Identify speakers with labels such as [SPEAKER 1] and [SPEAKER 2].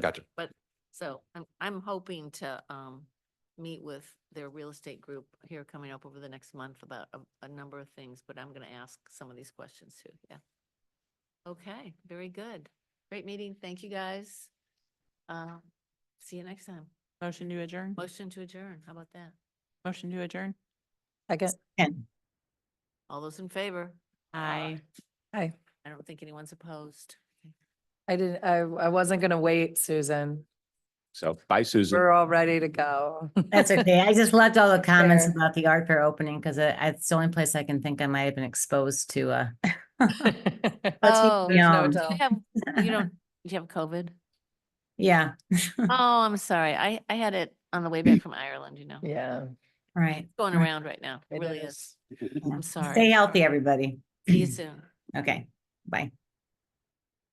[SPEAKER 1] Gotcha.
[SPEAKER 2] So I'm, I'm hoping to, um, meet with their real estate group here coming up over the next month about a, a number of things, but I'm gonna ask some of these questions too, yeah. Okay, very good. Great meeting. Thank you, guys. Um, see you next time.
[SPEAKER 3] Motion to adjourn?
[SPEAKER 2] Motion to adjourn. How about that?
[SPEAKER 3] Motion to adjourn?
[SPEAKER 4] Second.
[SPEAKER 2] All those in favor?
[SPEAKER 3] Aye.
[SPEAKER 4] Hi,
[SPEAKER 2] I don't think anyone's opposed.
[SPEAKER 4] I didn't, I, I wasn't gonna wait, Susan.
[SPEAKER 1] So bye, Susan.
[SPEAKER 4] We're all ready to go.
[SPEAKER 5] That's okay. I just loved all the comments
[SPEAKER 4] Fair.
[SPEAKER 5] about the art fair opening because it's the only place I can think I might have been exposed to. Uh,
[SPEAKER 2] Oh,
[SPEAKER 4] There's no
[SPEAKER 5] Yum.
[SPEAKER 2] you
[SPEAKER 4] doubt.
[SPEAKER 2] have, you don't, you have COVID?
[SPEAKER 5] yeah,
[SPEAKER 2] Oh, I'm sorry. I, I had it on the way back from Ireland, you know,
[SPEAKER 4] Yeah.
[SPEAKER 5] right.
[SPEAKER 2] going
[SPEAKER 5] Right.
[SPEAKER 2] around right now. Mm. It
[SPEAKER 4] it
[SPEAKER 2] really is. I'm
[SPEAKER 5] Stay
[SPEAKER 2] sorry.
[SPEAKER 5] healthy, everybody.
[SPEAKER 2] See you soon.
[SPEAKER 5] Okay, bye.